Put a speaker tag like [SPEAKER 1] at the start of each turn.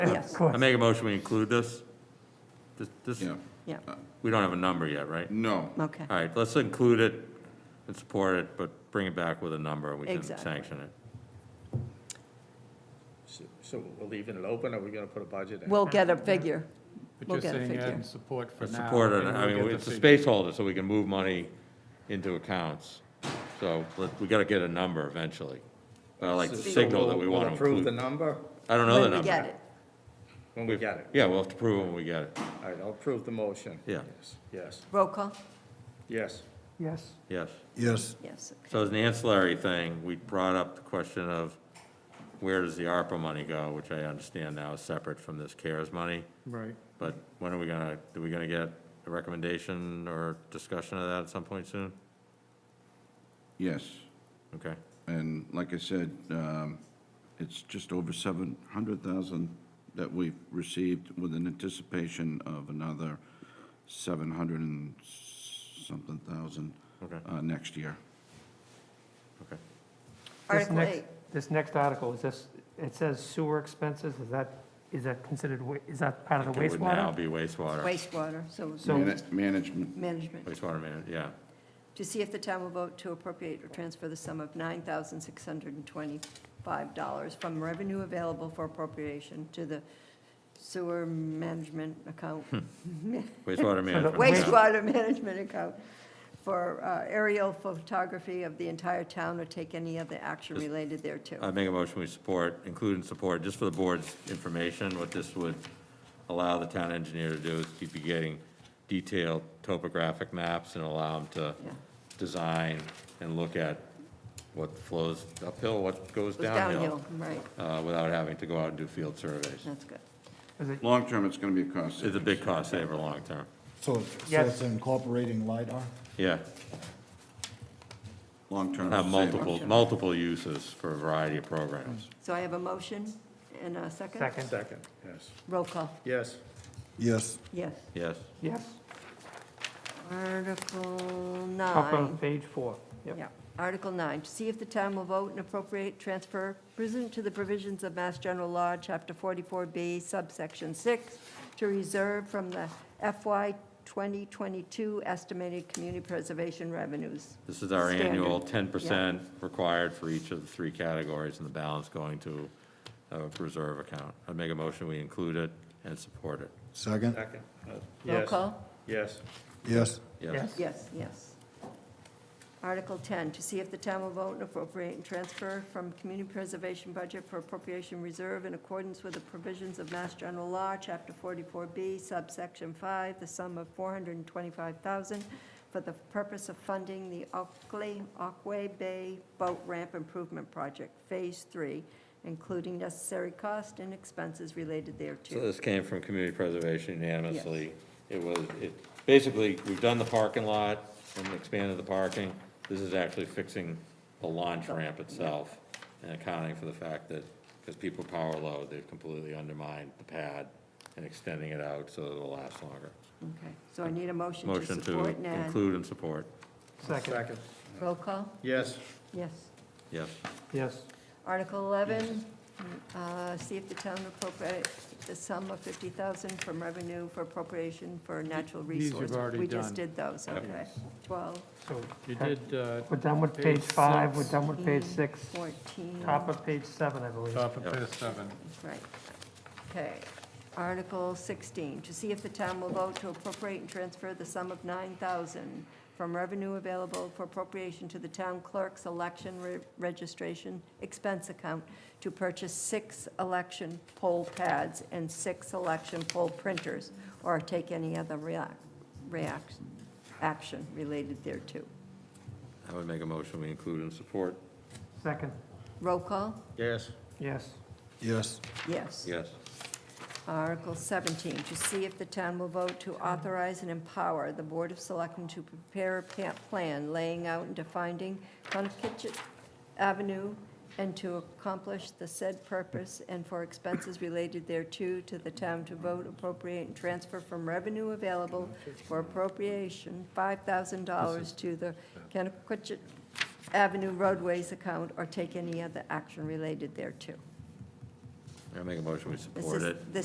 [SPEAKER 1] Yes,
[SPEAKER 2] course.
[SPEAKER 3] I make a motion, we include this? This- This,
[SPEAKER 4] Yeah,
[SPEAKER 1] yeah,
[SPEAKER 3] we don't have a number yet, right?
[SPEAKER 4] no.
[SPEAKER 1] okay.
[SPEAKER 3] All right, let's include it and support it, but bring it back with a number, we can
[SPEAKER 1] Exactly.
[SPEAKER 3] sanction it.
[SPEAKER 5] So- So we're leaving it open, or we gonna put a budget in?
[SPEAKER 1] We'll get a figure.
[SPEAKER 2] But
[SPEAKER 1] We'll
[SPEAKER 2] you're
[SPEAKER 1] get a
[SPEAKER 2] saying add
[SPEAKER 1] figure.
[SPEAKER 2] in support for
[SPEAKER 3] But
[SPEAKER 2] now.
[SPEAKER 3] support it,
[SPEAKER 2] and
[SPEAKER 3] I
[SPEAKER 2] we'll
[SPEAKER 3] mean,
[SPEAKER 2] get
[SPEAKER 3] it's
[SPEAKER 2] the
[SPEAKER 3] a
[SPEAKER 2] figure.
[SPEAKER 3] space holder, so we can move money into accounts. So let- we got to get a number eventually. But I like to
[SPEAKER 5] So
[SPEAKER 3] signal that we
[SPEAKER 5] we'll-
[SPEAKER 3] want to
[SPEAKER 5] We'll approve the
[SPEAKER 3] include.
[SPEAKER 5] number
[SPEAKER 3] I don't know the
[SPEAKER 1] When
[SPEAKER 3] number.
[SPEAKER 1] we get it.
[SPEAKER 5] when we get it.
[SPEAKER 3] Yeah, we'll have to prove it when we get it.
[SPEAKER 5] All right, I'll approve the motion.
[SPEAKER 3] Yeah.
[SPEAKER 5] Yes, Yes,
[SPEAKER 1] Roll call?
[SPEAKER 5] yes.
[SPEAKER 2] Yes,
[SPEAKER 3] Yes.
[SPEAKER 4] Yes.
[SPEAKER 1] Yes, okay.
[SPEAKER 3] So as an ancillary thing, we brought up the question of where does the ARPA money go, which I understand now is separate from this CARES money.
[SPEAKER 2] right.
[SPEAKER 3] But when are we gonna, are we gonna get a recommendation or discussion of that at some point soon?
[SPEAKER 4] Yes,
[SPEAKER 3] Okay.
[SPEAKER 4] and like I said, um, it's just over 700,000 that we've received with an anticipation of another 700 and something thousand
[SPEAKER 3] Okay.
[SPEAKER 4] uh, next year.
[SPEAKER 2] This
[SPEAKER 1] Article
[SPEAKER 2] next-
[SPEAKER 1] eight,
[SPEAKER 2] This next article, is this, it says sewer expenses, is that, is that considered, wa- is that part of the
[SPEAKER 3] It would now
[SPEAKER 2] wastewater?
[SPEAKER 3] be wastewater,
[SPEAKER 1] wastewater, so it's
[SPEAKER 2] So-
[SPEAKER 4] Mana- Management,
[SPEAKER 1] management.
[SPEAKER 3] wastewater man, yeah.
[SPEAKER 1] To see if the town will vote to appropriate or transfer the sum of $9,625 from revenue available for appropriation to the sewer management account,
[SPEAKER 3] Hmm. Wastewater management.
[SPEAKER 2] Waste-
[SPEAKER 3] yeah.
[SPEAKER 1] wastewater management account for uh, aerial photography of the entire town or take any other action
[SPEAKER 3] Just-
[SPEAKER 1] related thereto.
[SPEAKER 3] I make a motion we support, include and support, just for the board's information, what this would allow the town engineer to do is keep you getting detailed topographic maps and allow them to
[SPEAKER 1] Yeah.
[SPEAKER 3] design and look at what flows uphill, what goes
[SPEAKER 1] Goes
[SPEAKER 3] downhill,
[SPEAKER 1] Right,
[SPEAKER 3] uh, without having to go out and do field surveys.
[SPEAKER 1] that's good.
[SPEAKER 2] Is it-
[SPEAKER 4] long-term, it's going to be a cost.
[SPEAKER 3] It's a big cost saver long-term.
[SPEAKER 6] So, it's- so
[SPEAKER 2] Yes.
[SPEAKER 6] it's incorporating LiDAR?
[SPEAKER 3] Yeah,
[SPEAKER 4] Long-term.
[SPEAKER 3] have
[SPEAKER 4] it's a saver.
[SPEAKER 3] multiple, multiple uses for a variety of programs.
[SPEAKER 1] So I have a motion and a second?
[SPEAKER 2] Second,
[SPEAKER 5] Second, yes.
[SPEAKER 1] Roll call,
[SPEAKER 5] Yes,
[SPEAKER 6] Yes.
[SPEAKER 1] yes.
[SPEAKER 3] Yes,
[SPEAKER 2] yes,
[SPEAKER 1] Article
[SPEAKER 2] top of
[SPEAKER 1] nine.
[SPEAKER 2] page four, yep.
[SPEAKER 1] Yeah, Article 9, to see if the town will vote and appropriate transfer pursuant to the provisions of Mass General Law, Chapter 44B, subsection 6, to reserve from the FY 2022 estimated community preservation revenues.
[SPEAKER 3] this is our
[SPEAKER 1] Standard.
[SPEAKER 3] annual ten percent required for each of the three categories, and the balance going to a reserve account. I make a motion, we include it and support it.
[SPEAKER 6] Second?
[SPEAKER 5] second. uh,
[SPEAKER 1] Roll
[SPEAKER 5] yes,
[SPEAKER 1] call?
[SPEAKER 5] Yes,
[SPEAKER 6] Yes.
[SPEAKER 3] Yes,
[SPEAKER 1] Yes, yes. Article 10, to see if the town will vote and appropriate and transfer from community preservation budget for appropriation reserve in accordance with the provisions of Mass General Law, Chapter 44B, subsection 5, the sum of 425000 for the purpose of funding the Oakley, Aquay Bay Boat Ramp Improvement Project, Phase 3, including necessary cost and expenses related
[SPEAKER 3] So
[SPEAKER 1] thereto.
[SPEAKER 3] this came from community preservation unanimously. It was, it, basically, we've done the parking lot and expanded the parking. This is actually fixing the launch
[SPEAKER 1] Oh,
[SPEAKER 3] ramp itself and accounting for the fact that, because people power load, they've completely undermined the pad and extending it out so that it'll last longer.
[SPEAKER 1] Okay, so I need a motion to
[SPEAKER 3] Motion to
[SPEAKER 1] support and add.
[SPEAKER 3] include and support,
[SPEAKER 2] Second,
[SPEAKER 5] second.
[SPEAKER 1] Roll call?
[SPEAKER 5] Yes,
[SPEAKER 1] Yes.
[SPEAKER 3] yes.
[SPEAKER 2] yes,
[SPEAKER 1] Article 11, uh, see if the town appropriate the sum of 50,000 from revenue for appropriation for natural
[SPEAKER 7] These you've
[SPEAKER 1] resources.
[SPEAKER 7] already
[SPEAKER 1] We
[SPEAKER 7] done.
[SPEAKER 1] just did those, okay. 12,
[SPEAKER 2] so
[SPEAKER 7] You did, uh,
[SPEAKER 2] we're done with page
[SPEAKER 7] Page
[SPEAKER 2] five, we're
[SPEAKER 7] six.
[SPEAKER 2] done with page six,
[SPEAKER 1] 14,
[SPEAKER 2] top of page seven, I believe.
[SPEAKER 7] top of
[SPEAKER 3] Yep.
[SPEAKER 7] page seven.
[SPEAKER 1] right. Okay. Article 16, to see if the town will vote to appropriate and transfer the sum of 9,000 from revenue available for appropriation to the town clerk's election re- registration expense account to purchase six election poll pads and six election poll printers, or take any other reac- react, action related thereto.
[SPEAKER 3] I would make a motion, we include and support,
[SPEAKER 2] Second,
[SPEAKER 1] Roll call?
[SPEAKER 5] yes,
[SPEAKER 2] yes,
[SPEAKER 6] Yes.
[SPEAKER 1] Yes.
[SPEAKER 3] yes.
[SPEAKER 1] Article 17, to see if the town will vote to authorize and empower the Board of Selectmen to prepare a pa- plan laying out and defining Conkichet Avenue and to accomplish the said purpose and for expenses related thereto, to the town to vote, appropriate, and transfer from revenue available for appropriation, $5,000 to the Conkichet Avenue roadways account or take any other action related thereto.
[SPEAKER 3] I make a motion, we
[SPEAKER 1] This
[SPEAKER 3] support
[SPEAKER 1] is-
[SPEAKER 3] it.
[SPEAKER 1] This